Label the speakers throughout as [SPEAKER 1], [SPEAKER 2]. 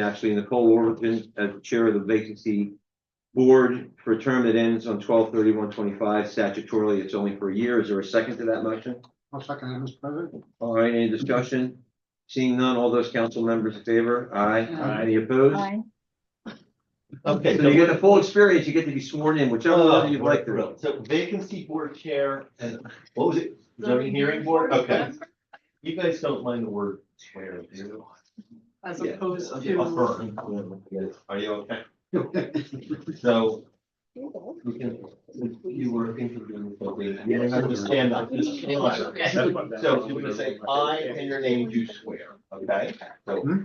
[SPEAKER 1] actually, Nicole Worthington as the Chair of the Vacancy Board for a term that ends on 12-31-25. Statutorily, it's only for a year. Is there a second to that motion?
[SPEAKER 2] I'll second that, Mr. President.
[SPEAKER 1] All right, any discussion? Seeing none, all those council members in favor? Aye.
[SPEAKER 2] Aye.
[SPEAKER 1] Any opposed?
[SPEAKER 3] Aye.
[SPEAKER 4] Okay.
[SPEAKER 1] So you get the full experience. You get to be sworn in, whichever
[SPEAKER 4] Oh,
[SPEAKER 1] one you'd like to.
[SPEAKER 4] So vacancy board chair and what was it? Zoning hearing board? Okay. You guys don't mind the word chair, do you?
[SPEAKER 5] As
[SPEAKER 1] Yeah.
[SPEAKER 5] opposed
[SPEAKER 4] Yeah,
[SPEAKER 5] to.
[SPEAKER 4] affirm. Are you okay? So you can, you were interviewing for me. You have to stand up, just stand up. So you're gonna say I and your name you swear, okay? So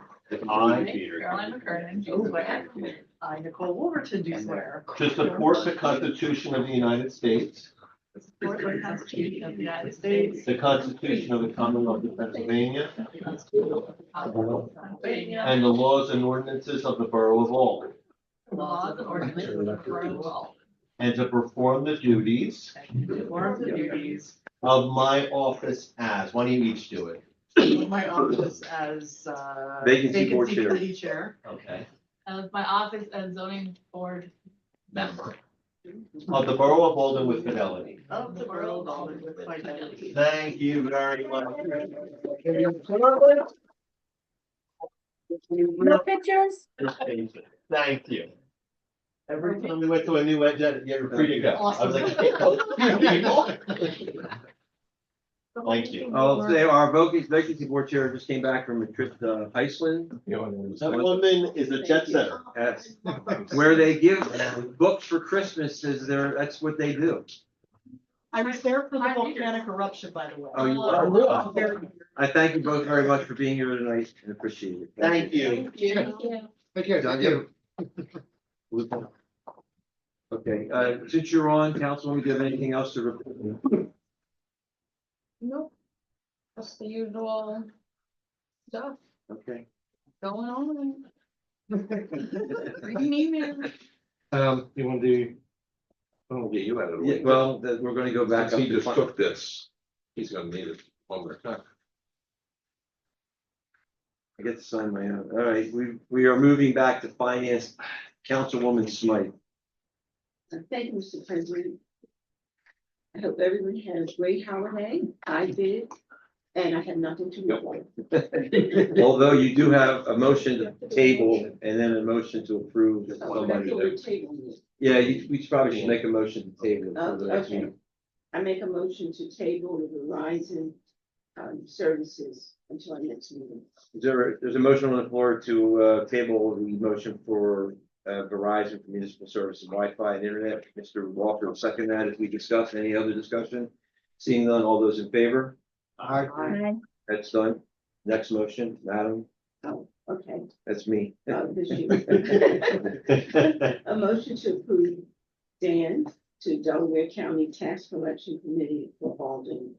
[SPEAKER 4] I,
[SPEAKER 5] Carolyn McKernan, do swear. I, Nicole Wolverton, do swear.
[SPEAKER 4] to support the Constitution of the United States,
[SPEAKER 5] Support the Constitution of the United States.
[SPEAKER 4] the Constitution of the Commonwealth of Pennsylvania,
[SPEAKER 5] the Constitution of the Commonwealth of Pennsylvania,
[SPEAKER 4] and the laws and ordinances of the Borough of Albany,
[SPEAKER 5] the Laws and ordinances of the Borough of Albany.
[SPEAKER 4] and to perform the duties
[SPEAKER 5] And to perform the duties
[SPEAKER 4] of my office as, why don't you each do it?
[SPEAKER 5] of my office as uh,
[SPEAKER 1] Vacancy board chair.
[SPEAKER 5] committee chair.
[SPEAKER 4] Okay.
[SPEAKER 6] of my office as zoning board member.
[SPEAKER 4] Of the Borough of Albany with fidelity.
[SPEAKER 5] Of the Borough of Albany with fidelity.
[SPEAKER 4] Thank you very much.
[SPEAKER 3] No pictures?
[SPEAKER 4] Thank you. Every time we went to a new edge, you're free to go. I was like. Thank you.
[SPEAKER 1] Oh, they are, vacancy, vacancy board chair just came back from a trip to Iceland.
[SPEAKER 4] That woman is a jet setter.
[SPEAKER 1] Yes. Where they give books for Christmas is their, that's what they do.
[SPEAKER 5] I was there for the volcanic eruption, by the way.
[SPEAKER 1] Oh, you
[SPEAKER 4] were?
[SPEAKER 5] I was there.
[SPEAKER 1] I thank you both very much for being here tonight and appreciate it.
[SPEAKER 4] Thank you.
[SPEAKER 2] Thank you.
[SPEAKER 1] Thank you. Okay, uh, since you're on, Councilwoman, do you have anything else to report?
[SPEAKER 6] Nope. That's the usual stuff
[SPEAKER 1] Okay.
[SPEAKER 6] going on. Reading emails.
[SPEAKER 7] Um, you want to? Oh,
[SPEAKER 8] Yeah, you had it.
[SPEAKER 1] Yeah, well, that, we're gonna go back
[SPEAKER 8] Since
[SPEAKER 1] up.
[SPEAKER 8] he
[SPEAKER 1] to
[SPEAKER 8] just
[SPEAKER 1] fin-
[SPEAKER 8] took this, he's gonna need it one more time.
[SPEAKER 1] I get to sign my own. All right, we, we are moving back to finance. Councilwoman Smythe.
[SPEAKER 9] Thank you, Mr. President. I hope everyone had a great holiday. I did, and I have nothing to report.
[SPEAKER 1] Although you do have a motion to table and then a motion to approve. that
[SPEAKER 9] So
[SPEAKER 1] somebody-
[SPEAKER 9] that's what we're tabling.
[SPEAKER 1] Yeah, you, we probably should make a motion to table.
[SPEAKER 9] Oh,
[SPEAKER 1] for the next
[SPEAKER 9] okay.
[SPEAKER 1] meeting.
[SPEAKER 9] I make a motion to table the Verizon um services until our next meeting.
[SPEAKER 1] Is there, there's a motion on the floor to, uh, table the motion for, uh, Verizon for municipal service and Wi-Fi and internet. Mr. Walker will second that as we discuss. Any other discussion? Seeing none, all those in favor?
[SPEAKER 2] Aye.
[SPEAKER 3] Aye.
[SPEAKER 1] That's done. Next motion, Madam,
[SPEAKER 9] Oh, okay,
[SPEAKER 1] that's me.
[SPEAKER 9] uh, this year. A motion to approve Dan to Delaware County Tax Collection Committee for Alden.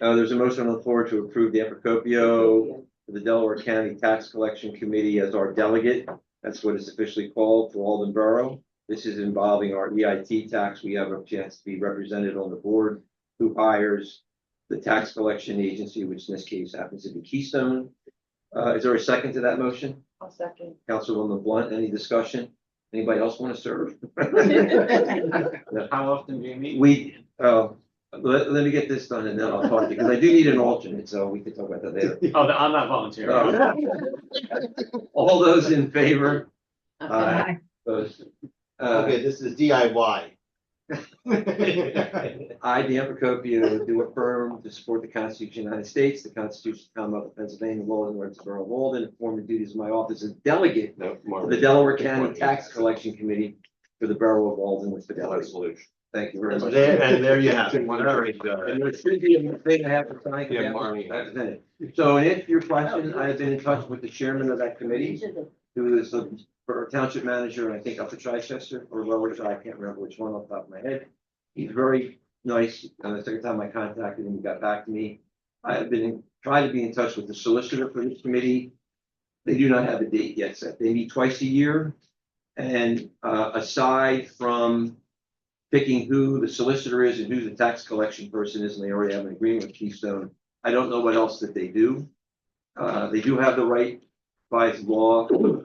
[SPEAKER 1] Uh, there's a motion on the floor to approve the Epicopio for the Delaware County Tax Collection Committee as our delegate. That's what it's officially called for Alden Borough. This is involving our EIT tax. We have a chance to be represented on the board who hires the tax collection agency, which in this case happens to be Keystone. Uh, is there a second to that motion?
[SPEAKER 5] I'll second.
[SPEAKER 1] Councilwoman Blunt, any discussion? Anybody else want to serve?
[SPEAKER 7] How often do you meet?
[SPEAKER 1] We, uh, let, let me get this done and then I'll talk to you, because I do need an alternate, so we can talk about that later.
[SPEAKER 7] Oh, I'm not volunteering.
[SPEAKER 4] Oh.
[SPEAKER 1] All those in favor? Aye.
[SPEAKER 3] Aye.
[SPEAKER 1] Opposed? Uh,
[SPEAKER 4] Okay, this is DIY.
[SPEAKER 1] I, Dan Procopio, do affirm to support the Constitution of the United States, the Constitution of the Commonwealth of Pennsylvania, law and orders of the Borough of Walden, and perform the duties of my office as delegate
[SPEAKER 8] No,
[SPEAKER 1] to
[SPEAKER 8] Marvin.
[SPEAKER 1] the Delaware County Tax Collection Committee for the Borough of Walden with fidelity.
[SPEAKER 8] Resolution.
[SPEAKER 1] Thank you very
[SPEAKER 4] And
[SPEAKER 1] much.
[SPEAKER 4] there- and there you have it.
[SPEAKER 1] And there should be a thing I have to sign.
[SPEAKER 8] Yeah, Marnie.
[SPEAKER 1] That's it. So and if your question, I have been in touch with the chairman of that committee, who is the borough township manager, I think, up at Chichester or Lower Chi, I can't remember which one off the top of my head. He's very nice. Uh, the second time I contacted him, he got back to me. I have been, in- tried to be in touch with the solicitor for this committee. They do not have a date yet set. They meet twice a year. And uh, aside from picking who the solicitor is and who the tax collection person is, and they already have an agreement with Keystone, I don't know what else that they do. Uh, They do have the right by law